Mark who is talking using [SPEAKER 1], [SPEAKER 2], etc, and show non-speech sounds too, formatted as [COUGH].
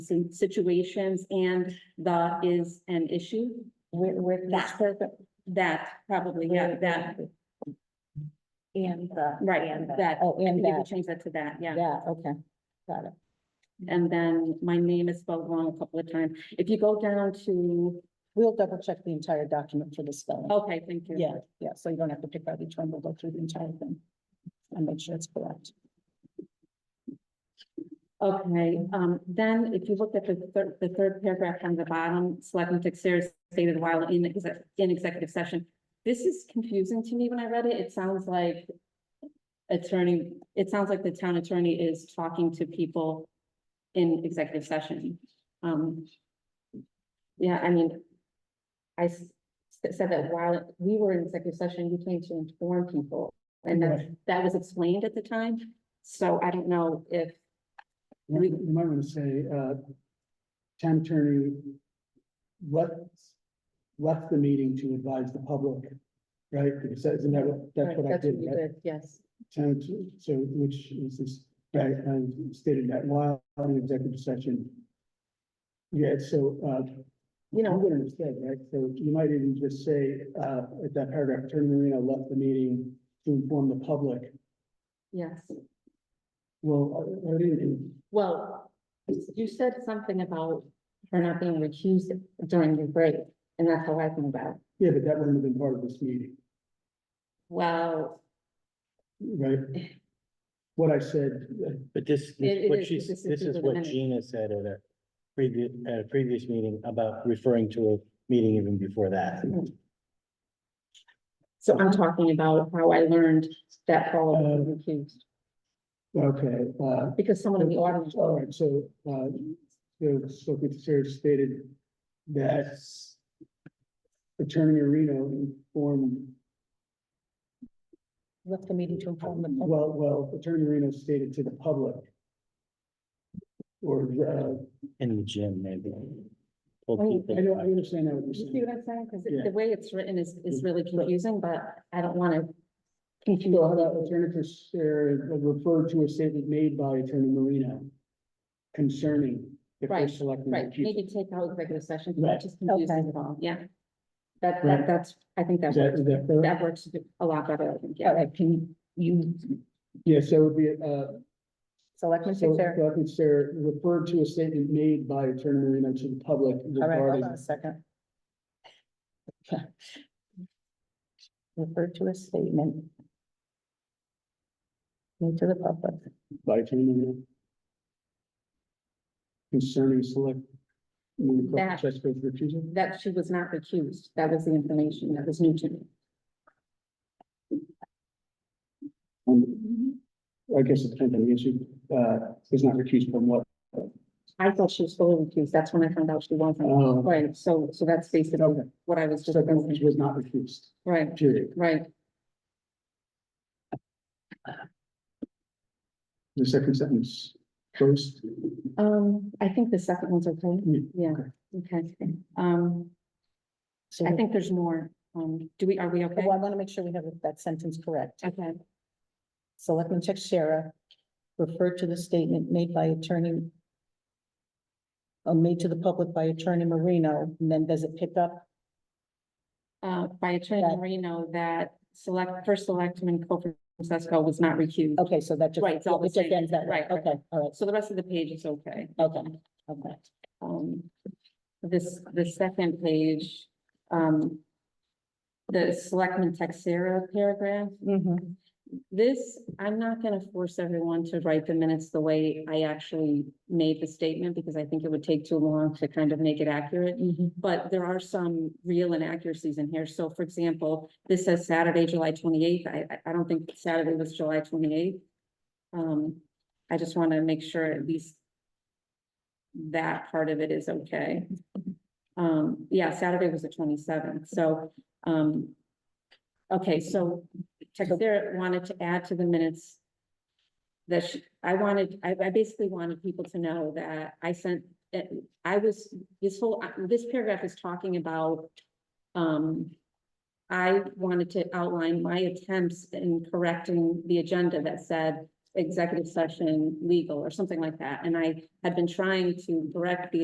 [SPEAKER 1] and situations, and that is an issue.
[SPEAKER 2] With, with
[SPEAKER 1] That. That probably, yeah, that,
[SPEAKER 2] And the.
[SPEAKER 1] right,
[SPEAKER 2] and the-
[SPEAKER 1] that,
[SPEAKER 2] Oh, and
[SPEAKER 1] we
[SPEAKER 2] that,
[SPEAKER 1] could change that to that, yeah.
[SPEAKER 2] yeah, okay, got it.
[SPEAKER 1] And then my name is spelled wrong a couple of times. If you go down to,
[SPEAKER 2] We'll double check the entire document for the spelling.
[SPEAKER 1] okay, thank you.
[SPEAKER 2] Yeah, yeah, so you don't have to pick out each one, we'll go through the entire thing. And make sure it's correct.
[SPEAKER 1] Okay, um, then if you look at the third, the third paragraph on the bottom, Selectman Texera stated while in, exec- in executive session. This is confusing to me when I read it. It sounds like attorney, it sounds like the town attorney is talking to people in executive session. Um, yeah, I mean, I s- said that while we were in executive session, you came to inform people. And that, that was explained at the time. So I don't know if
[SPEAKER 3] You might- you might want to say, uh, town attorney left, left the meeting to advise the public, right? Because that- isn't that what, that's what I did, right?
[SPEAKER 2] yes.
[SPEAKER 3] Town, t- so, which is this, right, I stated that while in executive session. Yeah, so, uh, you know, I'm gonna understand, right? So you might even just say, uh, at that paragraph, attorney Marino left the meeting to inform the public.
[SPEAKER 1] Yes,
[SPEAKER 3] Well, I I didn't,
[SPEAKER 1] well, you said something about her not being recused during your break, and that's how I think about it.
[SPEAKER 3] yeah, but that wouldn't have been part of this meeting.
[SPEAKER 1] Well,
[SPEAKER 3] Right. What I said, uh,
[SPEAKER 4] But this,
[SPEAKER 1] It-
[SPEAKER 4] is
[SPEAKER 1] it
[SPEAKER 4] what
[SPEAKER 1] is,
[SPEAKER 4] she's,
[SPEAKER 1] this is
[SPEAKER 4] this
[SPEAKER 1] through
[SPEAKER 4] is
[SPEAKER 1] the
[SPEAKER 4] what
[SPEAKER 1] minutes.
[SPEAKER 4] Gina said at a previous, at a previous meeting about referring to a meeting even before that.
[SPEAKER 1] Mm-hmm. so I'm talking about how I learned that Paula was
[SPEAKER 3] Uh,
[SPEAKER 1] recused,
[SPEAKER 3] okay, uh,
[SPEAKER 1] because someone in the audience.
[SPEAKER 3] all right, so, uh, so, so we sort of stated that Attorney Marino informed,
[SPEAKER 2] Left the meeting to inform the public.
[SPEAKER 3] well, well, Attorney Marino stated to the public. Or, uh,
[SPEAKER 4] In the gym, maybe. Told
[SPEAKER 1] Oh,
[SPEAKER 4] people-
[SPEAKER 3] I know, I understand that what
[SPEAKER 1] You
[SPEAKER 3] you're
[SPEAKER 1] see
[SPEAKER 3] saying.
[SPEAKER 1] what I'm saying? Because
[SPEAKER 3] Yeah.
[SPEAKER 1] the way it's written is, is really
[SPEAKER 3] But-
[SPEAKER 1] confusing, but I don't want to confuse.
[SPEAKER 3] So how about Attorney Casera referred to a statement made by Attorney Marino concerning the
[SPEAKER 1] Right,
[SPEAKER 3] first selectman.
[SPEAKER 1] Right, maybe take out executive session, 'cause
[SPEAKER 3] Right.
[SPEAKER 1] that just confuses
[SPEAKER 2] Okay.
[SPEAKER 1] it all, yeah. That,
[SPEAKER 3] Right.
[SPEAKER 1] that, that's, I think that
[SPEAKER 3] Is that,
[SPEAKER 1] works,
[SPEAKER 3] is that fair?
[SPEAKER 1] that works a lot better, I think,
[SPEAKER 2] All
[SPEAKER 1] yeah.
[SPEAKER 2] right, can you,
[SPEAKER 3] Yeah, so it would be, uh,
[SPEAKER 2] Selectman
[SPEAKER 3] So,
[SPEAKER 2] Sarah?
[SPEAKER 3] Selectman Sarah referred to a statement made by Attorney Marino to the public
[SPEAKER 2] All right, hold
[SPEAKER 3] regarding,
[SPEAKER 2] on a second. [LAUGHS] Okay. Refer to a statement. Made to the public.
[SPEAKER 3] by Attorney Marino. Concerning select.
[SPEAKER 1] That-
[SPEAKER 3] Jessica's recusal.
[SPEAKER 1] That she was not recused, that was the information that was new to me.
[SPEAKER 3] Um, I guess it depends on the issue, uh, is not recused from what,
[SPEAKER 1] I thought she was fully recused, that's when I found out she wasn't,
[SPEAKER 3] uh,
[SPEAKER 1] right, so, so that's basically
[SPEAKER 3] okay,
[SPEAKER 1] what I was
[SPEAKER 3] so
[SPEAKER 1] just
[SPEAKER 3] that
[SPEAKER 1] thinking,
[SPEAKER 3] was not recused,
[SPEAKER 1] right,
[SPEAKER 3] period.
[SPEAKER 1] right,
[SPEAKER 3] The second sentence, first,
[SPEAKER 1] um, I think the second one's okay,
[SPEAKER 3] Yeah,
[SPEAKER 1] yeah, okay, um,
[SPEAKER 2] So
[SPEAKER 1] I
[SPEAKER 2] we-
[SPEAKER 1] think there's more, um, do we, are we okay?
[SPEAKER 2] Well, I want to make sure we have that sentence correct.
[SPEAKER 1] Okay,
[SPEAKER 2] Selectman Texera referred to the statement made by attorney uh, made to the public by attorney Marino, and then does it pick up?
[SPEAKER 1] uh, by Attorney
[SPEAKER 2] Right.
[SPEAKER 1] Marino, that select, first selectman Cofer Francisco was not recused,
[SPEAKER 2] Okay, so that just.
[SPEAKER 1] Right, it's all the
[SPEAKER 2] it just
[SPEAKER 1] same.
[SPEAKER 2] ends that way.
[SPEAKER 1] Right, right.
[SPEAKER 2] Okay, all right,
[SPEAKER 1] so the rest of the page is okay.
[SPEAKER 2] okay, okay.
[SPEAKER 1] um, this, the second page, um, the selectman Texera paragraph,
[SPEAKER 2] Mhm.
[SPEAKER 1] this, I'm not gonna force everyone to write the minutes the way I actually made the statement, because I think it would take too long to kind of make it accurate.
[SPEAKER 2] Mhm.
[SPEAKER 1] But there are some real inaccuracies in here. So for example, this says Saturday, July twenty-eighth. I, I- I don't think Saturday was July twenty-eighth. Um, I just want to make sure at least that part of it is okay. Um, yeah, Saturday was the twenty-seventh, so, um, okay, so Texera wanted to add to the minutes that she, I wanted, I, I basically wanted people to know that I sent, that I was this whole, uh, this paragraph is talking about, um, I wanted to outline my attempts in correcting the agenda that said executive session legal or something like that. And I had been trying to correct the